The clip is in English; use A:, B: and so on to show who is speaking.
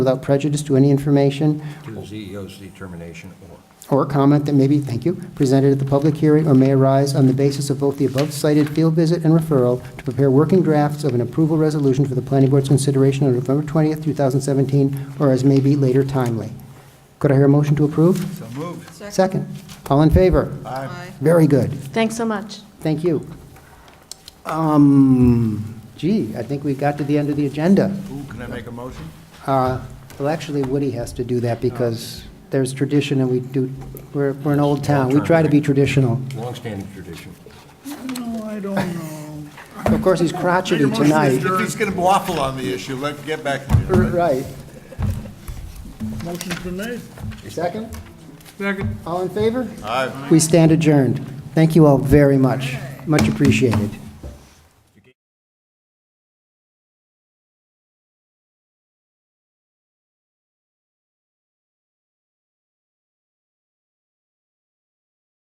A: without prejudice to any information
B: to the CEO's determination or.
A: or comment that may be, thank you, presented at the public hearing or may arise on the basis of both the above-cited field visit and referral to prepare working drafts of an approval resolution for the planning board's consideration on November 20th, 2017, or as may be later timely. Could I hear a motion to approve?
B: So moved.
A: Second. All in favor?
B: Aye.
A: Very good.
C: Thanks so much.
A: Thank you. Um, Gee, I think we got to the end of the agenda.
B: Ooh, can I make a motion?
A: Uh, Well, actually, Woody has to do that because there's tradition and we do, we're, we're an old town. We try to be traditional.
B: Longstanding tradition.
D: No, Oh, I don't know.
A: Of course, he's crotchety tonight.
E: If he's going to waffle on the issue, let, get back to
A: R-
E: you.
A: Right.
D: Motion's been made.
A: Second?
D: Second.
A: All in favor?
E: Aye.
A: We stand adjourned. Thank you all very much. Much appreciated.